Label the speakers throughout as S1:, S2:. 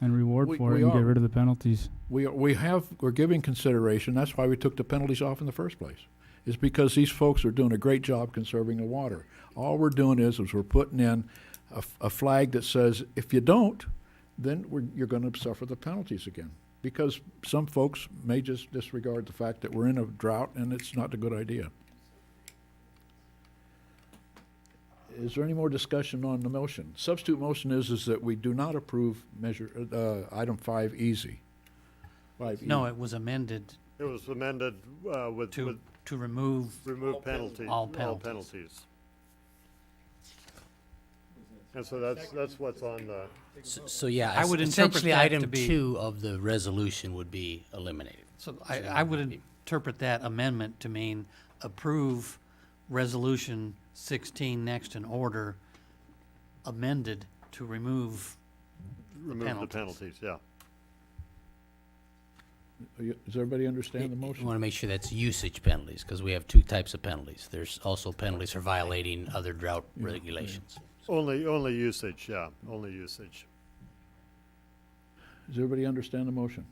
S1: and reward
S2: We-
S1: for it
S2: we
S1: and get
S2: are.
S1: rid of the penalties.
S2: We, we have, we're giving consideration, that's why we took the penalties off in the first place, is because these folks are doing a great job conserving the water. All we're doing is, is we're putting in a, f- a flag that says, if you don't, then we're, you're gonna suffer the penalties again. Because some folks may just disregard the fact that we're in a drought and it's not a good idea. Is there any more discussion on the motion? Substitute motion is, is that we do not approve measure, uh, item five easy. Five E.
S3: No, it was amended
S4: It was amended uh, with,
S3: to,
S4: with
S3: to remove,
S4: remove penalties.
S3: All penalties.
S4: And so that's, that's what's on the,
S5: So, so yeah,
S3: I would
S5: es-
S3: interpret
S5: essentially,
S3: that to
S5: item
S3: be-
S5: two of the resolution would be eliminated.
S3: so I, I would interpret that amendment to mean approve resolution sixteen next in order amended to remove,
S4: remove the
S3: penalties.
S4: penalties, yeah.
S2: Are you- Does everybody understand the
S5: You
S2: motion?
S5: want to make sure that's usage penalties, because we have two types of penalties. There's also penalties for violating other drought regulations.
S4: Only, only usage, yeah, only usage.
S2: Does everybody understand the motion?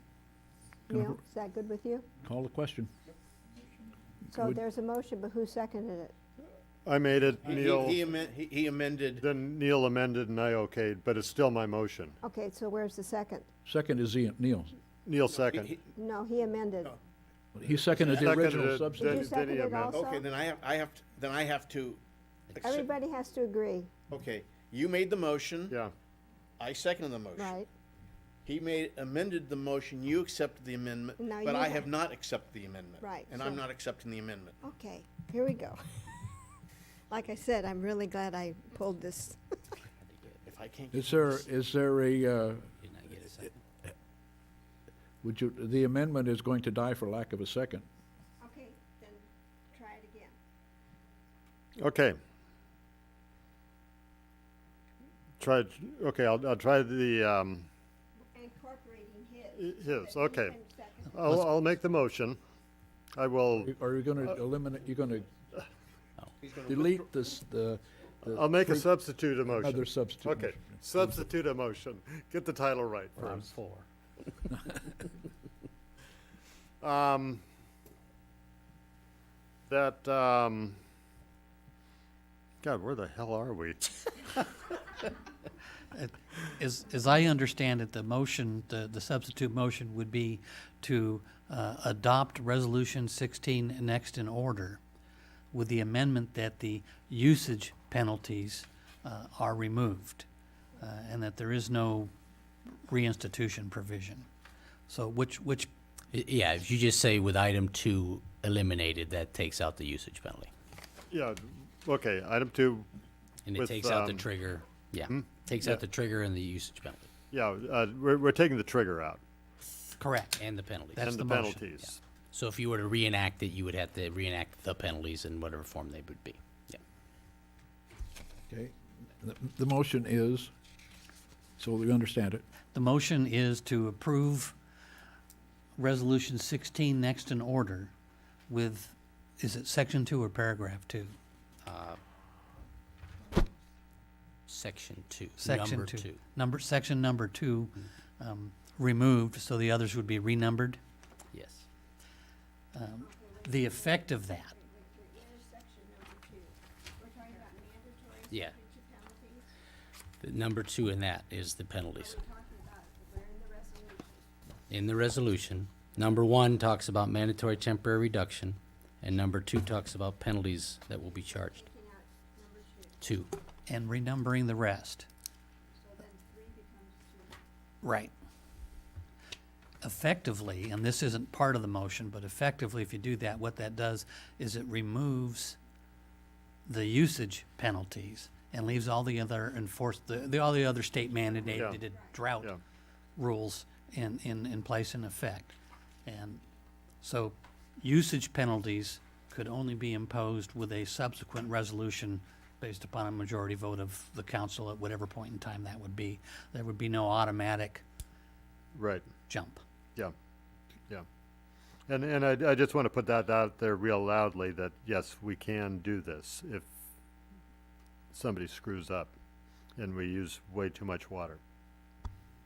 S6: Neil, is that good with you?
S2: Call the question.
S6: So
S2: Would-
S6: there's a motion, but who seconded it?
S4: I made it, Neil,
S5: He amended.
S4: then Neil amended and I okayed, but it's still my motion.
S6: Okay, so where's the second?
S2: Second is Ian, Neil.
S4: Neil second.
S7: he-
S6: No, he amended.
S2: He seconded the
S4: Seconded
S2: original
S4: it,
S6: Did
S2: substitute.
S4: then-
S6: you
S4: did he
S6: second it
S4: amend?
S6: also?
S7: Okay, then I have, I have, to- then I have to, accept-
S6: Everybody has to agree,
S7: okay, you made the motion,
S4: Yeah,
S7: I seconded the motion.
S6: right?
S7: He made, amended the motion, you accepted the amendment,
S6: Now
S7: but
S6: you
S7: I
S6: have-
S7: have not accepted the amendment.
S6: Right,
S7: And I'm
S6: so-
S7: not accepting the amendment.
S6: Okay, here we go. Like I said, I'm really glad I pulled this.
S7: If I can't get
S2: Is there, is there a, uh, would you, the amendment is going to die for lack of a second.
S6: Okay, then try it again.
S4: okay. Tried, okay, I'll, I'll try the, um,
S6: Incorporating
S4: I- his, okay. I'll, I'll make the motion. I will,
S2: Are you gonna
S4: Uh,
S2: eliminate, you're gonna delete this, the, the
S4: I'll make a substitute a motion.
S2: other substitute?
S4: Okay,
S2: motion?
S4: substitute a motion. Get the title right first.
S5: four.
S4: Um, that, um, God, where the hell are we?
S3: as, as I understand it, the motion, the, the substitute motion would be to, uh, adopt resolution sixteen next in order with the amendment that the usage penalties, uh, are removed, uh, and that there is no reinstitution provision. So which, which
S5: Yeah, if you just say with item two eliminated, that takes out the usage penalty.
S4: Yeah, okay, item two,
S5: And it
S4: With,
S5: takes out the
S4: um,
S5: trigger, yeah, takes out the trigger and the usage penalty,
S4: yeah, uh, we're, we're taking the trigger out
S3: Correct.
S5: and the penalty.
S3: That's
S4: and the
S3: the motion,
S4: penalties.
S5: So if you were to reenact it, you would have to reenact the penalties in whatever form they would be. Yeah.
S2: Okay. The, the motion is, so we understand it,
S3: The motion is to approve Resolution 16 next in order with, is it section two or paragraph two?
S5: Section two,
S3: Section
S5: number two. Mm-hmm.
S3: Number, section number two um, removed, so the others would be renumbered.
S5: Yes.
S3: The effect of that,
S5: Yeah. The number two in that is the penalties. In the resolution, number one talks about mandatory temporary reduction, and number two talks about penalties that will be charged. Two.
S3: and renumbering the rest. Right. Effectively, and this isn't part of the motion, but effectively, if you do that, what that does is it removes the usage penalties and leaves all the other enforced, the, the, all the other state mandated drought
S4: Yeah.
S3: rules in, in, in place and effect. And so usage penalties could only be imposed with a subsequent resolution based upon a majority vote of the council at whatever point in time that would be. There would be no automatic
S4: Right,
S3: jump.
S4: yeah, yeah. And, and I, I just want to put that out there real loudly, that yes, we can do this if somebody screws up and we use way too much water.